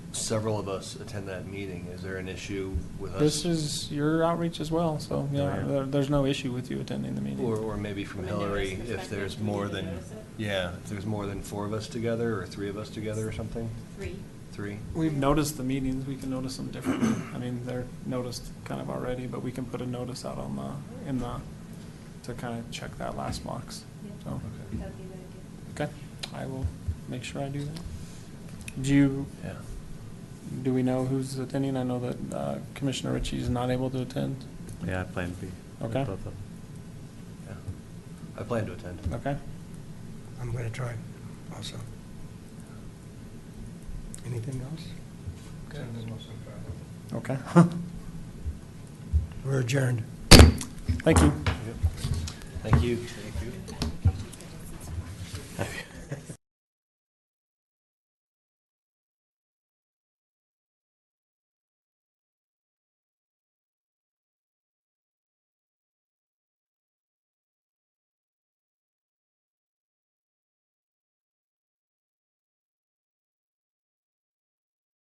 several of us attend that meeting. Is there an issue with us? This is your outreach as well, so, yeah, yeah. there, there's no issue with you attending the Or, meeting. or maybe from From a notice Hillary, if perspective, there's do we more need to than, notice it? yeah, if there's more than four of us together, or three of us together or something? Three. Three? We've noticed the meetings, we can notice them differently. I mean, they're noticed kind of already, but we can put a notice out on the, in the, to kind of check that last box. So, Oh, Okay. That'd be really good. okay, I will make sure I do that. Do you, Yeah. do we know who's attending? I know that uh, Commissioner Ritchie is not able to attend. Yeah, I plan B. with Okay. both of them. yeah. I plan to attend. Okay, I'm going to try also. Anything else? okay. We're adjourned. Thank you. Thank you. Thank you.